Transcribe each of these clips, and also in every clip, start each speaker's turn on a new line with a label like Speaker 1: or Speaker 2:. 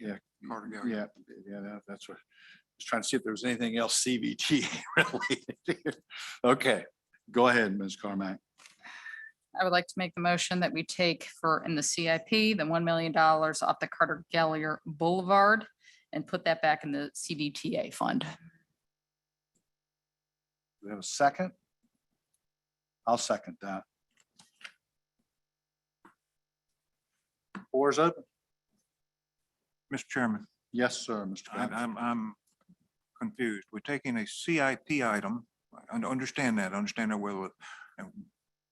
Speaker 1: Yeah.
Speaker 2: Carter Gallery.
Speaker 1: Yeah, yeah, that- that's what, I was trying to see if there was anything else CBT related. Okay, go ahead, Ms. Carmack.
Speaker 3: I would like to make the motion that we take for, in the CIP, the one million dollars off the Carter Gallier Boulevard and put that back in the CDTA fund.
Speaker 1: Do we have a second? I'll second that. Floor is open.
Speaker 2: Mr. Chairman,
Speaker 1: Yes, sir, Mr.
Speaker 2: I-
Speaker 1: Bennett.
Speaker 2: I'm, I'm confused. We're taking a CIP item. I don't understand that, I understand that well. And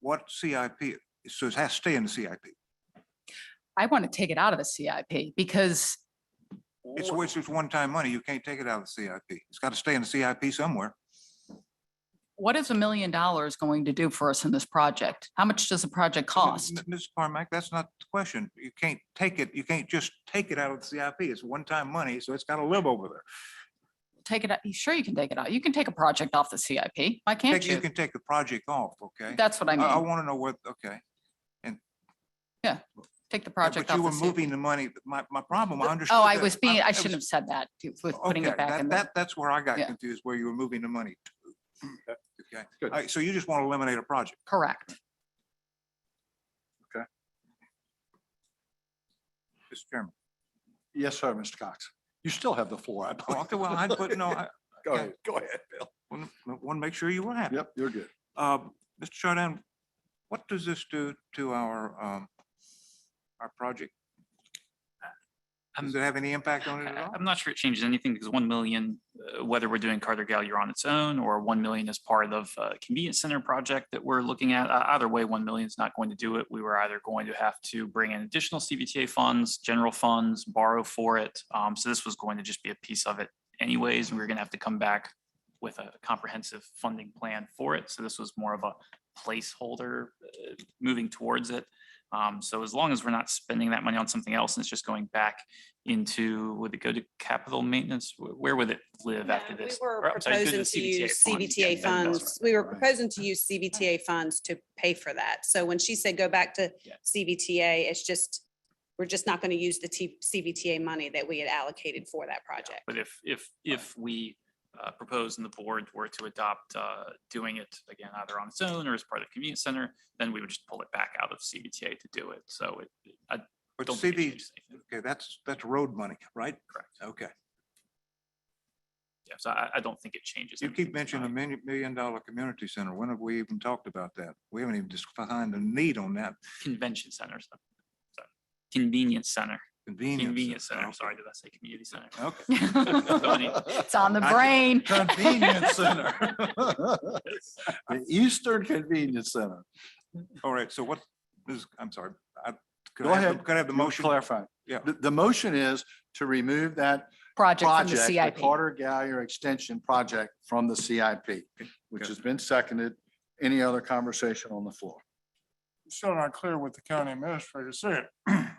Speaker 2: what CIP, so it has to stay in the CIP.
Speaker 3: I want to take it out of the CIP because
Speaker 2: It's, it's just one-time money. You can't take it out of the CIP. It's got to stay in the CIP somewhere.
Speaker 3: what is a million dollars going to do for us in this project? How much does the project cost?
Speaker 2: M- Ms. Carmack, that's not the question. You can't take it, you can't just take it out of the CIP. It's one-time money, so it's got to live over there.
Speaker 3: Take it out, sure you can take it out. You can take a project off the CIP. Why can't
Speaker 2: Take- You
Speaker 3: you?
Speaker 2: can take the project off, okay?
Speaker 3: That's what I
Speaker 2: I, I
Speaker 3: mean.
Speaker 2: want to know what, okay.
Speaker 3: Take the
Speaker 2: Yeah,
Speaker 3: project
Speaker 2: But
Speaker 3: off
Speaker 2: you
Speaker 3: the
Speaker 2: were
Speaker 3: CIP.
Speaker 2: moving the money, my, my problem, I understood.
Speaker 3: Oh, I
Speaker 2: that.
Speaker 3: was being, I
Speaker 2: was-
Speaker 3: shouldn't have said that with putting
Speaker 2: Okay,
Speaker 3: it back
Speaker 2: that,
Speaker 3: in the,
Speaker 2: that, that's where I got
Speaker 3: Yeah.
Speaker 2: confused, where you were moving the money. to. Mm, Okay, all
Speaker 1: Good.
Speaker 2: right, so you just want to eliminate a project.
Speaker 3: correct.
Speaker 2: Mr. Chairman.
Speaker 1: Yes, sir, Mr. Cox. You still have the floor, I
Speaker 2: Oh,
Speaker 1: believe.
Speaker 2: Okay, well, I put, no, I
Speaker 1: Go ahead, go ahead, Bill.
Speaker 2: want to make sure you were happy.
Speaker 1: Yep, you're good.
Speaker 2: Uh, Mr. Chardon, what does this do to our, um, our project?
Speaker 3: Um,
Speaker 2: Does it have any impact on it at
Speaker 4: I-
Speaker 2: all?
Speaker 4: I'm not sure it changes anything because 1 million, uh, whether we're doing Carter Gallier on its own or 1 million as part of a convenience center project that we're looking at, uh, either way, 1 million is not going to do it. We were either going to have to bring in additional CBTA funds, general funds, borrow for it. Um, So this was going to just be a piece of it anyways. and We were going to have to come back with a comprehensive funding plan for it. So this was more of a placeholder uh, moving towards it. Um, So as long as we're not spending that money on something else and it's just going back into, would it go to capital maintenance? Wh- Where would it live
Speaker 5: No,
Speaker 4: after this?
Speaker 5: We were
Speaker 4: Or, I'm sorry, go
Speaker 5: proposing to use
Speaker 4: Yeah,
Speaker 5: CBTA
Speaker 4: that- that's right.
Speaker 5: funds. We were
Speaker 1: Right.
Speaker 5: proposing to use CBTA funds to pay for that. So when she said go back to
Speaker 4: Yeah.
Speaker 5: CBTA, it's just, we're just not going to use the T- CBTA money that we had allocated for that project.
Speaker 4: But if, if, if we uh, propose and the board were to adopt uh, doing it again, either on its own or as part of the community center, then we would just pull it back out of CBTA to do it. So it, I
Speaker 2: But
Speaker 4: don't think it
Speaker 2: CB,
Speaker 4: changes anything.
Speaker 2: okay, that's, that's road money, right? Correct. Okay.
Speaker 4: Yeah, so I, I don't think it changes.
Speaker 2: You
Speaker 4: anything
Speaker 2: keep mentioning a
Speaker 4: tonight.
Speaker 2: million, million dollar community center. When have we even talked about that? We haven't even defined the need on that
Speaker 4: Convention centers. uh, sorry, Convenience center,
Speaker 2: convenience.
Speaker 4: convenience center. I'm
Speaker 2: Okay.
Speaker 4: Sorry, did I say community center?
Speaker 2: Okay.
Speaker 3: It's on the
Speaker 2: I can-
Speaker 3: brain.
Speaker 1: Convenience Center. The Eastern Convenience Center.
Speaker 2: All right, so what is, I'm sorry. I- could
Speaker 1: Go
Speaker 2: I have the-
Speaker 1: ahead.
Speaker 2: Could I have the motion?
Speaker 1: Clarify.
Speaker 2: Yeah.
Speaker 1: The, the motion is to remove that
Speaker 3: Project from the
Speaker 1: project, the
Speaker 3: CIP.
Speaker 1: Carter Gallier Extension Project from the CIP, which
Speaker 2: Okay.
Speaker 1: has been seconded. Any other conversation on the floor?
Speaker 6: still not clear what the county administrator said.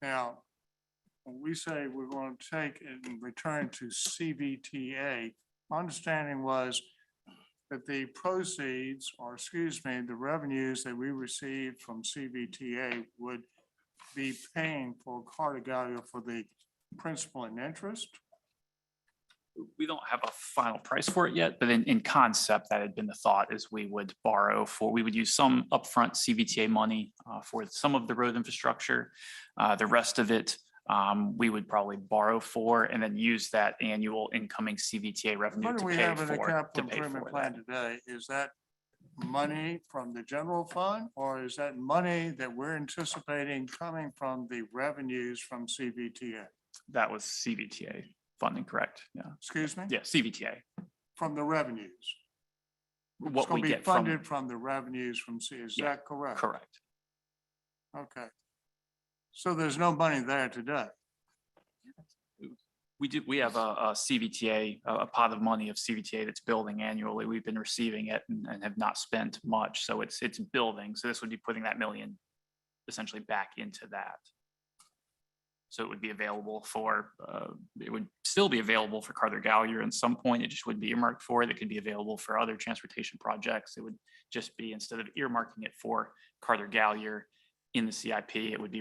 Speaker 6: Now, when we say we're going to take it and return to CBTA, my understanding was that the proceeds, or excuse me, the revenues that we received from CBTA would be paying for Carter Gallia for the principal and interest?
Speaker 4: we don't have a final price for it yet, but in, in concept, that had been the thought is we would borrow for, we would use some upfront CVTA money uh, for some of the road infrastructure. Uh, The rest of it, um, we would probably borrow for and then use that annual incoming CVTA revenue
Speaker 6: What do
Speaker 4: to
Speaker 6: we
Speaker 4: pay
Speaker 6: have in the
Speaker 4: for, to
Speaker 6: capital
Speaker 4: pay
Speaker 6: improvement
Speaker 4: for that.
Speaker 6: plan today? Is that money from the general fund? Or is that money that we're anticipating coming from the revenues from CBTA?
Speaker 4: That was CVTA funding, correct? Yeah,
Speaker 6: Excuse me?
Speaker 4: yeah, CVTA,
Speaker 6: From the revenues? It's
Speaker 4: what we
Speaker 6: going to be
Speaker 4: get from,
Speaker 6: funded from the revenues from C, is
Speaker 4: Yeah,
Speaker 6: that correct?
Speaker 4: correct.
Speaker 6: Okay. So there's no money there today?
Speaker 4: We do, we have a, a CVTA, a a pot of money of CVTA that's building annually. We've been receiving it and, and have not spent much. So it's, it's building. So this would be putting that million essentially back into that. So it would be available for, uh, it would still be available for Carter Gallier at some point. It just wouldn't be earmarked for it. It could be available for other transportation projects. It would just be instead of earmarking it for Carter Gallier in the CIP, it would be